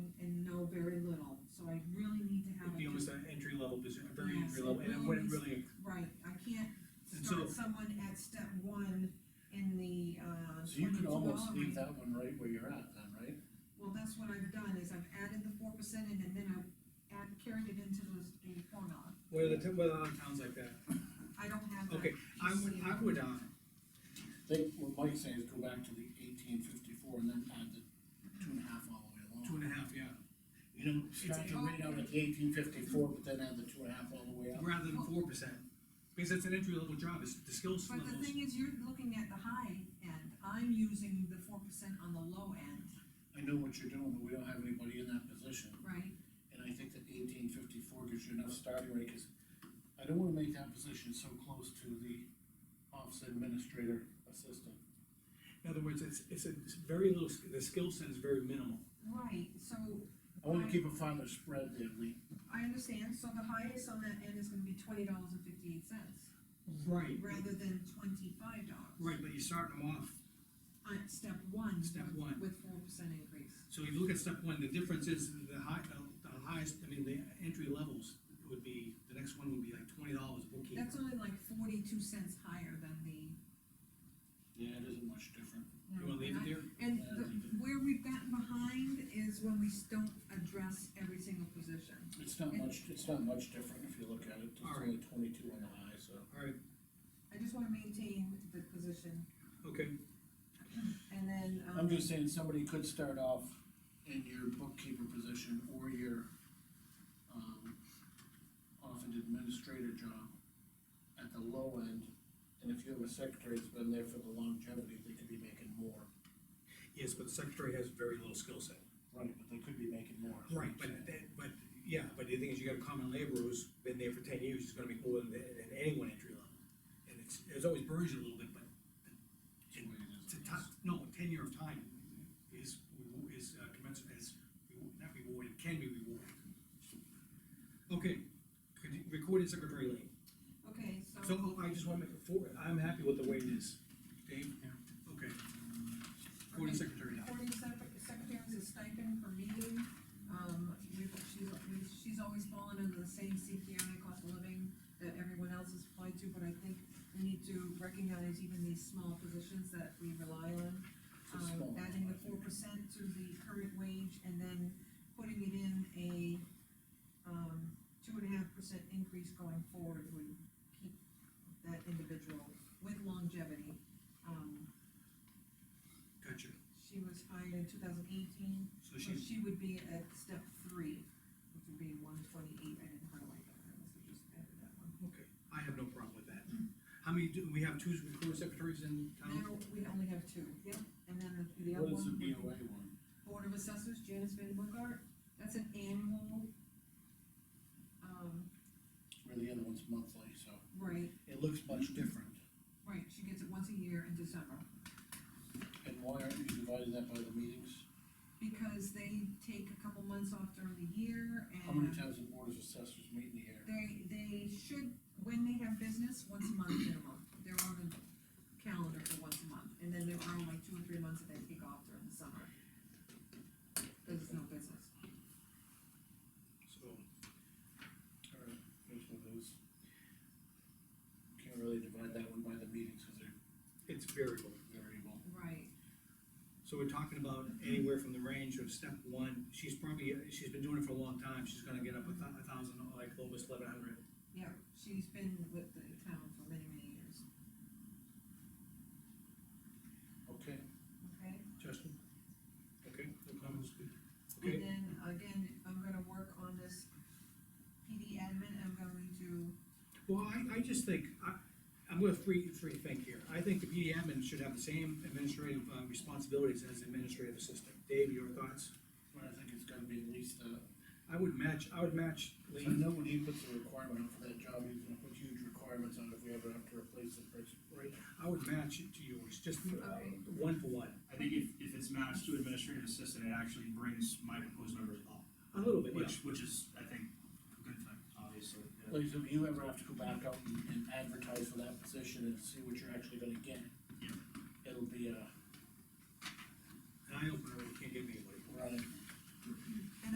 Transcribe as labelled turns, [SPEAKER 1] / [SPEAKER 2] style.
[SPEAKER 1] level is a thirty degree level, and it wouldn't really,
[SPEAKER 2] Right, I can't
[SPEAKER 1] And
[SPEAKER 2] start
[SPEAKER 1] so-
[SPEAKER 2] someone at step one in the, uh.
[SPEAKER 3] So you could
[SPEAKER 2] 22
[SPEAKER 3] almost
[SPEAKER 2] dollar
[SPEAKER 3] leave
[SPEAKER 2] range.
[SPEAKER 3] that one right where you're at then, right?
[SPEAKER 2] Well, that's what I've done, is I've added the four percent in, and then I've add, carried it into the, the formula.
[SPEAKER 1] what are the, t- what are the towns like that?
[SPEAKER 2] I don't have that.
[SPEAKER 1] Okay, I would, I would, uh,
[SPEAKER 3] I think what Mike's saying is go back to the eighteen fifty-four and then add the two and a half all the way
[SPEAKER 1] two
[SPEAKER 3] along.
[SPEAKER 1] and a half, yeah,
[SPEAKER 3] You know, start to rate out at eighteen fifty-four, but then add the two and a half all the way up.
[SPEAKER 1] rather than four percent, because it's an entry level job, it's the skills
[SPEAKER 2] But the
[SPEAKER 1] levels.
[SPEAKER 2] thing is, you're looking at the high end, I'm using the four percent on the low end,
[SPEAKER 3] I know what you're doing, but we don't have anybody in that position.
[SPEAKER 2] right?
[SPEAKER 3] And I think that eighteen fifty-four gives you enough starting rate, cause I don't wanna make that position so close to the office administrator assistant.
[SPEAKER 1] In other words, it's, it's a it's very little, sk- the skill set is very minimal.
[SPEAKER 2] Right, so
[SPEAKER 3] I wanna keep a farther spread there, Lee.
[SPEAKER 2] I understand, so the highest on that end is gonna be twenty dollars and fifty-eight cents,
[SPEAKER 1] Right.
[SPEAKER 2] rather than twenty-five dollars.
[SPEAKER 1] Right, but you're starting them off,
[SPEAKER 2] On step one.
[SPEAKER 1] Step
[SPEAKER 2] with-
[SPEAKER 1] one.
[SPEAKER 2] With four percent increase.
[SPEAKER 1] so if you look at step one, the difference is the high, the- the highest, I mean, the entry levels would be, the next one would be like twenty dollars bookkeeper.
[SPEAKER 2] That's only like forty-two cents higher than the.
[SPEAKER 3] Yeah, it isn't much different.
[SPEAKER 1] You wanna leave it there?
[SPEAKER 2] And the- where we've gotten behind is when we don't address every single position.
[SPEAKER 3] It's not much, it's not much different if you look at it, it's
[SPEAKER 1] All right.
[SPEAKER 3] only twenty-two on the high, so.
[SPEAKER 1] All right,
[SPEAKER 2] I just wanna maintain the position,
[SPEAKER 1] okay,
[SPEAKER 2] and then, um.
[SPEAKER 3] I'm just saying, somebody could start off in your bookkeeper position or your, um, often administrator job at the low end, and if you have a secretary that's been there for the longevity, they could be making more.
[SPEAKER 1] yes, but the secretary has very little skill set.
[SPEAKER 3] Right, but they could be making more. is what
[SPEAKER 1] Right,
[SPEAKER 3] I'm
[SPEAKER 1] but
[SPEAKER 3] saying.
[SPEAKER 1] that, but, yeah, but the thing is, you got a common laborer who's been there for ten years, is gonna make more than, than anyone entry level. And it's, it's always burns you a little bit, but
[SPEAKER 3] It's the way it is,
[SPEAKER 1] to ti-
[SPEAKER 3] I guess.
[SPEAKER 1] no, tenure of time is, is uh, commensurate, is reward- not rewarded, can be rewarded. Okay, could you- recording secretary lane,
[SPEAKER 2] Okay, so,
[SPEAKER 1] so oh, I just wanna make a four, I'm happy with the way it is. Dave? Okay. Recording secretary now.
[SPEAKER 2] according to sec- secretaries, a stipend per meeting, um, we've, she's, we've, she's always fallen under the same CPI cost of living that everyone else is applied to, but I think we need to recognize even these small positions that we rely on.
[SPEAKER 3] It's a small
[SPEAKER 2] um, adding the four
[SPEAKER 3] one.
[SPEAKER 2] percent to the current wage and then putting it in a, um, two and a half percent increase going forward would keep that individual with longevity. Um,
[SPEAKER 1] Gotcha,
[SPEAKER 2] she was hired in two thousand eighteen,
[SPEAKER 1] so
[SPEAKER 2] so
[SPEAKER 1] she's,
[SPEAKER 2] she would be at step three, which would be one twenty-eight, I didn't highlight that, I must have just added that one.
[SPEAKER 1] okay, I have no problem with that. How many, do, we have two recording secretaries in town?
[SPEAKER 2] Now, we only have two. Yep. And then the- the other one.
[SPEAKER 3] What is the
[SPEAKER 2] would be-
[SPEAKER 3] BOA one?
[SPEAKER 2] Board of Assessors, Janice Van Bookart, that's an annual, um,
[SPEAKER 3] Where the other one's monthly, so
[SPEAKER 2] right,
[SPEAKER 3] it looks much different.
[SPEAKER 2] right, she gets it once a year in December.
[SPEAKER 3] And why aren't you dividing that by the meetings?
[SPEAKER 2] Because they take a couple months off during the year
[SPEAKER 3] How many
[SPEAKER 2] and
[SPEAKER 3] times the board of assessors meet in the year?
[SPEAKER 2] they, they should, when they have business, once a month minimum. They're on the calendar for once a month, and then there are like two or three months that they take off during the summer. There's no business.
[SPEAKER 1] So,
[SPEAKER 3] All right, there's one of those. Can't really divide that one by the meetings, cause they're
[SPEAKER 1] it's variable.
[SPEAKER 3] variable.
[SPEAKER 2] Right.
[SPEAKER 1] So we're talking about anywhere from the range of step one, she's probably, she's been doing it for a long time, she's gonna get up a thou- a thousand, like almost eleven hundred.
[SPEAKER 2] Yeah, she's been with the town for many, many years,
[SPEAKER 3] Okay,
[SPEAKER 2] okay?
[SPEAKER 1] Justin? Okay, no comments, good.
[SPEAKER 2] And
[SPEAKER 1] Okay,
[SPEAKER 2] then, again, I'm gonna work on this PD admin, I'm going to,
[SPEAKER 1] well, I, I just think, I, I'm gonna free, free think here. I think the PD admin should have the same administrative uh, responsibilities as the administrative assistant. Dave, your thoughts?
[SPEAKER 3] but I think it's gotta be at least, uh,
[SPEAKER 1] I would match, I would match
[SPEAKER 3] I
[SPEAKER 1] Lee.
[SPEAKER 3] know when he puts a requirement for that job, he's gonna put huge requirements on if we ever have to replace the person.
[SPEAKER 1] Right. I would match it to yours, just uh,
[SPEAKER 2] Okay.
[SPEAKER 1] one for one,
[SPEAKER 4] I think if, if it's matched to administrative assistant, it actually brings my proposed numbers up,
[SPEAKER 1] a little bit, yeah.
[SPEAKER 4] which, which is, I think, a good thing, obviously. yeah.
[SPEAKER 3] Like, so if you ever have to go back out and, and advertise for that position and see what you're actually gonna get,
[SPEAKER 4] Yeah.
[SPEAKER 3] it'll be, uh,